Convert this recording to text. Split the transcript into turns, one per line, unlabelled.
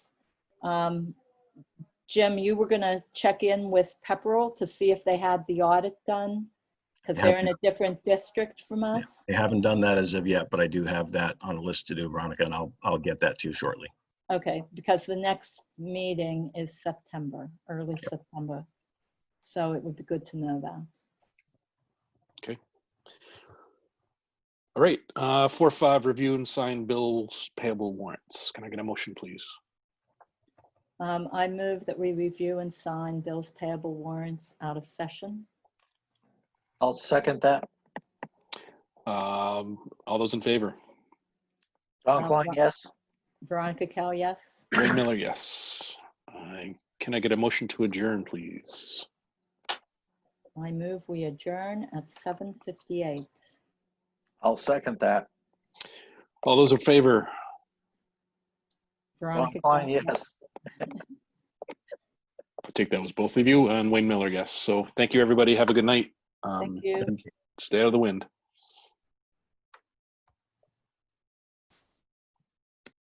Um, Jim, you were gonna check in with Pepperell to see if they had the audit done? Because they're in a different district from us?
They haven't done that as of yet, but I do have that on a list to do, Veronica, and I'll, I'll get that to you shortly.
Okay, because the next meeting is September, early September. So it would be good to know that.
All right, uh, four, five, review and sign bills payable warrants. Can I get a motion, please?
Um, I move that we review and sign bills payable warrants out of session.
I'll second that.
Um, all those in favor?
Don
Don
Klein,
Klein.
yes.
Uh, Veronica Cal, yes?
Ray Miller, yes. I, can I get a motion to adjourn, please?
I move we adjourn at 7:58.
I'll second that.
All those in favor?
Don
Veronica
Klein,
Cal-
yes.
I take that was both of you and Wayne Miller, yes. So thank you, everybody. Have a good night. Um,
you.
and Stay out of the wind.